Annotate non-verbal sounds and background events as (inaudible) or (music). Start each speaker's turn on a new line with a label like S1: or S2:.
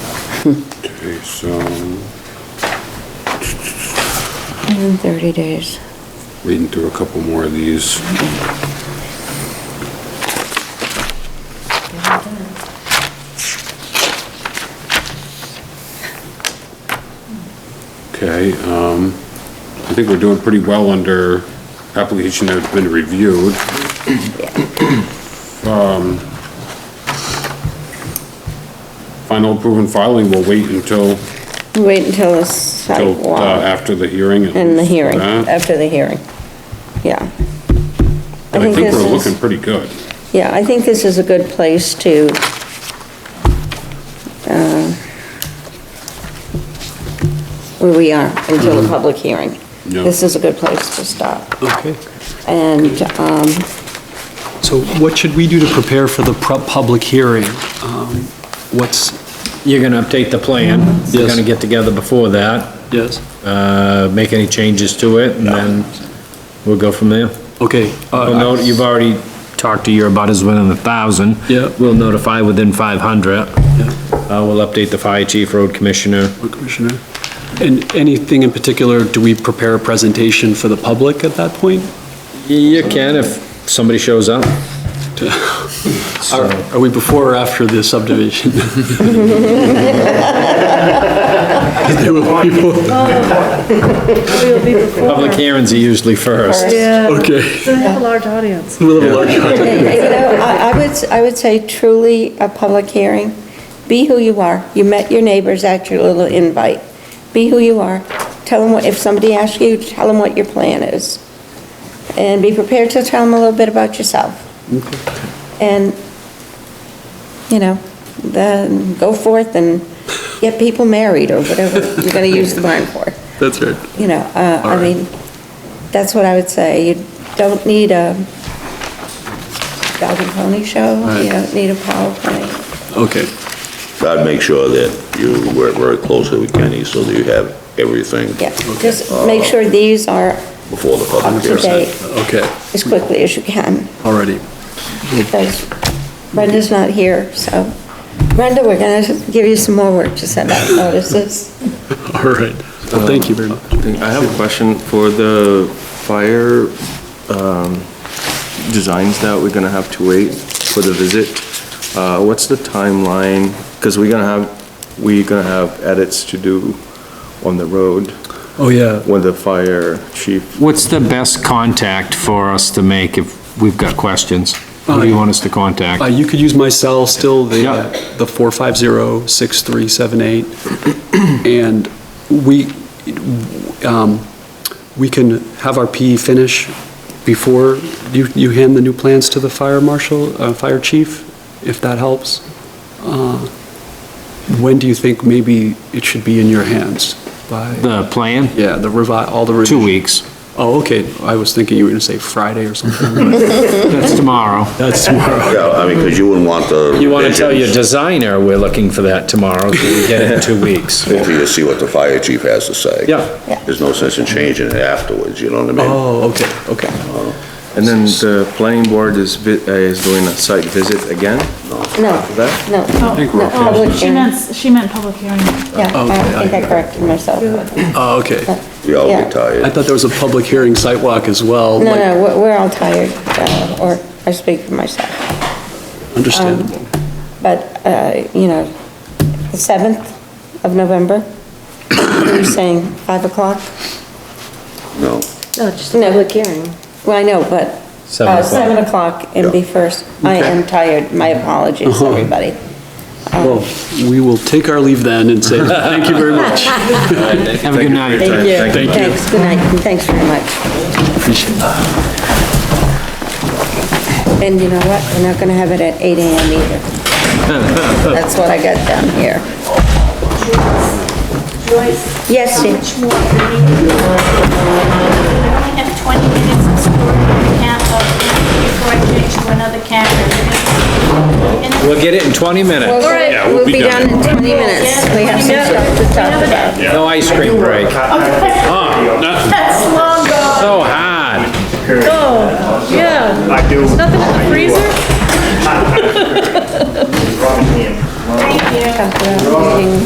S1: Okay, so,
S2: Within 30 days.
S1: reading through a couple more of these. Okay, um, I think we're doing pretty well under application that's been reviewed. Um, Final approval and filing will wait until,
S2: Wait until the
S1: till, uh,
S2: sidewalk
S1: after uh-huh. the hearing. at
S2: and the
S1: least for
S2: hearing,
S1: that.
S2: after the hearing. Yeah. I
S1: I think
S2: think this
S1: we're looking
S2: is,
S1: pretty good.
S2: yeah, I think this is a good place to, uh, where we are until the public hearing.
S1: Mm-hmm. Yeah.
S2: This is a good place to stop.
S3: Okay,
S2: And, um,
S3: so what should we do to prepare for the pub- public hearing? Um, What's,
S4: You're gonna update the plan, you're
S3: Yes.
S4: gonna get together before that,
S3: yes,
S4: uh, make any changes to it, and then we'll go from there.
S3: okay. uh,
S4: We'll note, you've already talked to your abutters within a thousand.
S3: Yeah.
S4: We'll notify within five hundred.
S3: yeah,
S4: Uh, we'll update the fire chief, road commissioner.
S3: Road Commissioner. And anything in particular, do we prepare a presentation for the public at that point?
S4: You can if somebody shows (laughs) up.
S3: Are are we before or after the (laughs) subdivision? There will be more.
S5: We'll be before.
S4: Public hearings are usually first.
S5: Yeah,
S3: Okay.
S5: so we have a large audience.
S3: We'll have a large-
S2: you know, I I would, I would say truly a public hearing. Be who you are. You met your neighbors at your little invite. Be who you are. Tell them, if somebody asks you, tell them what your plan is. And be prepared to tell them a little bit about yourself. And, you know, then go forth and get people married or whatever you're going to use the barn for
S3: That's right.
S2: you know, uh, I
S3: All right.
S2: mean, that's what I would say. You don't need a dog and pony show,
S3: Right.
S2: you don't need a PowerPoint.
S3: Okay,
S6: I'd make sure that you work very closely with Kenny so that you have everything
S2: Yeah, just make sure these are
S6: before the public
S2: up to
S6: hearing.
S2: date
S3: okay,
S2: as quickly as you can,
S3: already.
S2: because Brenda's not here, so. Brenda, we're gonna give you some more work to send out notices.
S3: All right. Um, Well, thank you very much.
S7: I have a question for the fire um, designs that we're gonna have to wait for the visit. Uh, What's the timeline? Because we're gonna have, we're gonna have edits to do on the road
S3: Oh, yeah.
S7: with the fire chief.
S4: What's the best contact for us to make if we've got questions? Who do you want us to
S3: Uh,
S4: contact?
S3: you could use my cell still, the,
S4: Yeah.
S3: the four five zero six three seven eight. And we, um, we can have our PE finish before you, you hand the new plans to the fire marshal, uh, fire chief, if that helps. Uh, When do you think maybe it should be in your hands? By,
S4: The plan,
S3: yeah, the revi, all the. revi-
S4: two weeks,
S3: Oh, okay, I was thinking you were gonna say Friday or something.
S4: that's tomorrow.
S3: That's tomorrow.
S6: Yeah, I mean, because you wouldn't want the.
S4: You want to tell your
S6: revisions
S4: designer we're looking for that tomorrow, so we get it in two weeks.
S6: Until you see what the fire chief has to say.
S2: Yeah.
S6: There's no sense in changing it afterwards, you know what I mean? Uh,
S3: Oh, okay, okay.
S7: And then the planning board is, vi- uh, is doing a site visit again?
S2: No,
S7: That?
S2: no, no, public
S5: She
S2: hearing.
S5: meant, she meant public hearing.
S2: Yeah,
S3: Okay,
S2: I think I corrected myself.
S3: Oh, okay.
S6: We all
S2: Yeah.
S6: get tired.
S3: I thought there was a public hearing site walk as well.
S2: No,
S3: like-
S2: no, we're- we're all tired, uh, or I speak for myself.
S3: Understandable.
S2: But, uh, you know, the 7th of November, you're saying 5 o'clock?
S6: No,
S5: No, just
S2: No, public hearing. Well, I know, but
S4: Seven
S2: uh,
S4: o'clock.
S2: 7 o'clock and be first. I am tired, my apologies, everybody.
S3: Well, we will take our leave then and say, thank you very much.
S4: Have a good night.
S2: Thank you.
S3: Thank you.
S2: Thanks, good night, and thanks very much.
S3: Appreciate that.
S2: And you know what, we're not gonna have it at 8 AM either. That's what I got down here.
S8: Joyce,
S2: Yes,
S8: how
S2: Steve?
S8: much more do we need? I only have 20 minutes of story account of before I change to another camera. And
S4: We'll get it in 20 minutes.
S2: We'll we'll be done in 20 minutes. We have some stuff to talk about.
S4: No ice cream break.
S5: That's long gone.
S4: So hard.
S5: Oh, yeah. I do. There's nothing in the freezer?
S8: Thank you.
S2: 啊 Talk about meeting.